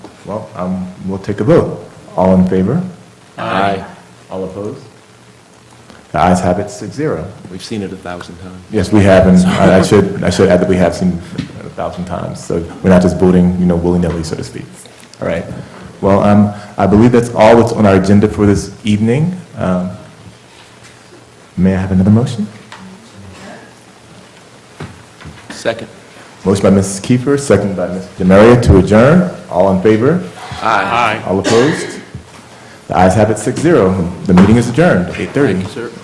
Well, um, we'll take a vote. All in favor? Aye. All opposed? The ayes have it, six zero. We've seen it a thousand times. Yes, we have, and I I should, I should add that we have seen a thousand times, so we're not just voting, you know, willy-nilly, so to speak. All right. Well, um, I believe that's all that's on our agenda for this evening. Um, May I have another motion? Second. Motion by Mrs. Kiefer, second by Ms. Demaria to adjourn. All in favor? Aye. All opposed? The ayes have it, six zero. The meeting is adjourned, eight thirty. Thank you, sir.